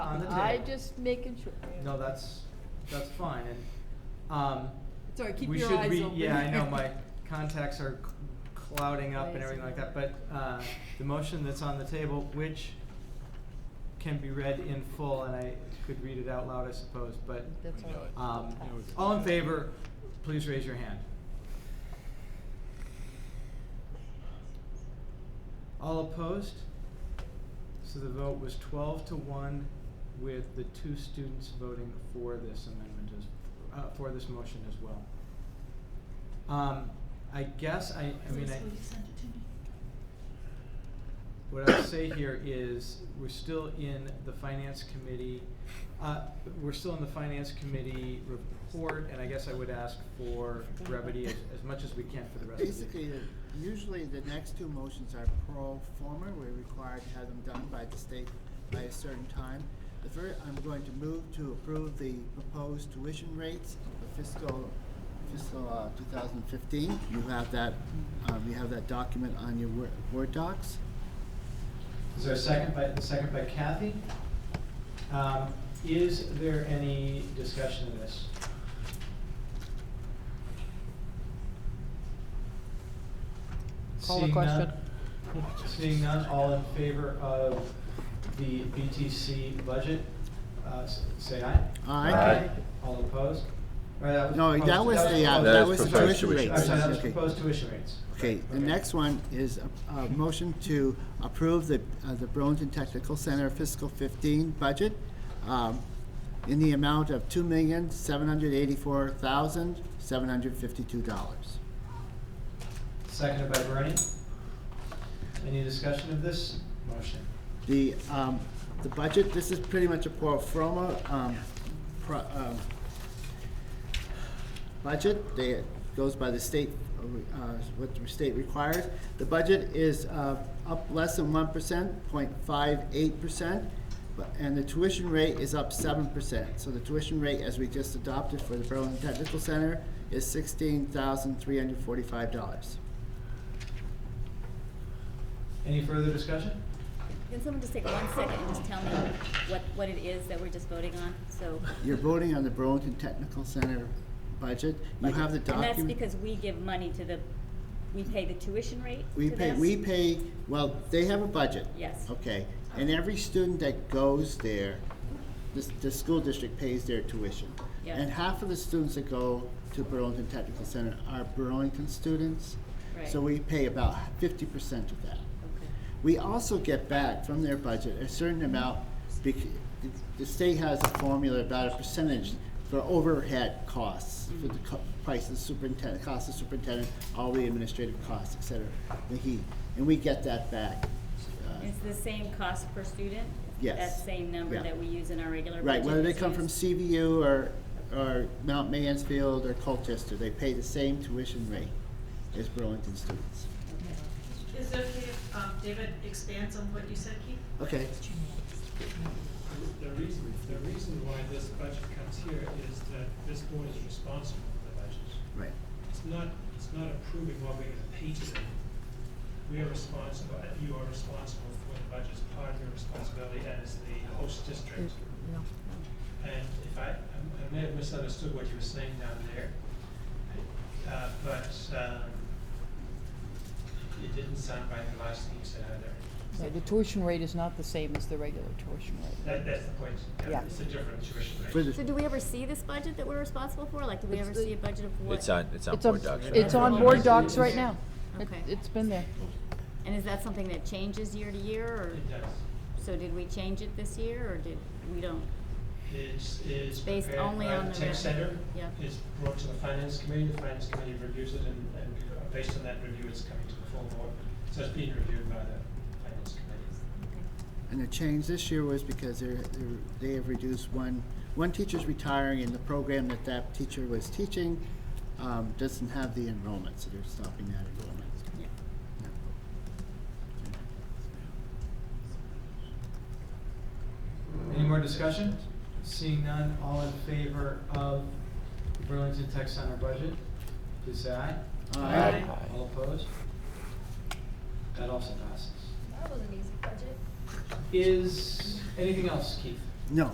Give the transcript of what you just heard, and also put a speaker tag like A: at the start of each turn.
A: on the
B: I
A: table.
B: just making sure.
A: No, that's, that's fine, and, um,
C: Sorry, keep
A: we
C: your
A: should
C: eyes
A: re-
C: open.
A: Yeah, I know, my contacts are c- clouding up and
C: Eyes
A: everything like that, but,
C: open.
A: uh, the motion that's on the table, which can be read in full, and I could read it out loud, I suppose, but,
B: That's all.
A: um, all in favor, please raise your hand. All opposed? So the vote was twelve to one with the two students voting for this amendment as, uh, for this motion as well. Um, I guess I, I mean, I. What I'll say here is, we're still in the finance committee, uh, we're still in the finance committee report, and I guess I would ask for brevity as, as much as we can for the rest of the.
D: Basically, the- usually the next two motions are pro forma, we're required to have them done by the state by a certain time. The first, I'm going to move to approve the proposed tuition rates for fiscal, fiscal uh, 2015. You have that, um, you have that document on your Word- Word docs.
A: Is there a second by, second by Kathy? Um, is there any discussion of this?
B: Call the
A: Seeing none-
B: question.
A: Seeing none, all in favor of the BTC budget, uh, s- say aye.
D: Aye.
E: Aye.
A: All opposed? Or that was
D: No,
A: proposed-
D: that was the, uh,
E: That
D: that
E: is
D: was the
E: proposed
D: tuition
E: tuition.
D: rates.
A: I'm sorry, that was
D: Okay.
A: proposed tuition rates.
D: Okay, the next one is a, a motion to approve the, uh, the Burlington Technical Center fiscal fifteen budget, um, in the amount of two million, seven hundred eighty-four thousand, seven hundred fifty-two dollars.
A: Seconded by Bernie. Any discussion of this motion?
D: The, um, the budget, this is pretty much a pro forma, um, pro, um, budget. They, it goes by the state, uh, what the state requires. The budget is, uh, up less than one percent, point five eight percent. And the tuition rate is up seven percent. So the tuition rate, as we just adopted for the Burlington Technical Center, is sixteen thousand three hundred forty-five dollars.
A: Any further discussion?
F: Can someone just take one second and just tell me what, what it is that we're just voting on, so.
D: You're voting on the Burlington Technical Center budget. You have the
F: And that's
D: document.
F: because we give money to the, we pay the tuition rate
D: We
F: to
D: pay,
F: them?
D: we pay, well, they have a budget.
F: Yes.
D: Okay, and every student that goes there, the, the school district pays their tuition.
F: Yeah.
D: And half of the students that go to Burlington Technical Center are Burlington students. So
F: Right.
D: we pay about fifty percent of that.
F: Okay.
D: We also get back from their budget a certain amount, bec- the- the state has a formula about a percentage for overhead costs, for the co- price of the superintendent, cost of superintendent, all the administrative costs, et cetera, the heat, and we get that back. uh,
F: It's the same cost per student?
D: Yes.
F: That same number
D: Yeah.
F: that we use in our regular budget?
D: Uh, Right, whether they
F: that's
D: come from
F: used?
D: CVU or, or Mount Mansfield or Colchester, they pay the same tuition rate as Burlington students.
G: Is it okay if um, David expands on what you said, Keith?
D: Okay,
H: The reason, the reason why this budget comes here is that this board is responsible for the budget.
D: right.
H: It's not, it's not approving what we're gonna pay to them. We are responsible, you are responsible for the budget, it's part of your responsibility as the host district. And if I, I may have misunderstood what you were saying down there, uh, but, um, it didn't sound right the last thing you said either.
B: So the tuition rate is not the same as the regular tuition rate.
H: That, that's the point,
B: Yeah.
H: yeah, it's a different tuition rate.
D: For the-
F: So do we ever see this budget that we're responsible for? Like, do we
B: It's
F: ever
B: the-
F: see a budget of what?
E: It's on, it's on
B: It's on,
E: board docs. right
B: it's
E: now.
B: on board docs right now. It-
F: Okay.
B: It's been there.
F: And is that something that changes year to year, or,
H: It does.
F: so did we change it this year, or did, we don't?
H: It's, it's
F: Based
H: prepared
F: only
H: by
F: on
H: the
F: the
H: tech
F: rec-
H: center.
F: yeah.
H: It's brought to the finance committee, the finance committee reviews it, and, and uh, based on that review, it's coming to the full board. So it's being reviewed by the finance committee.
D: And the change this year was because they're, they're, they have reduced one, one teacher's retiring and the program that that teacher was teaching, um, doesn't have the enrollment, so they're stopping that enrollment.
F: Yeah.
A: Any more discussion? Seeing none, all in favor of the Burlington Tech Center budget, please say aye.
D: Aye. Aye.
A: All opposed? That also passes.
I: That was an easy budget.
A: Is anything else, Keith?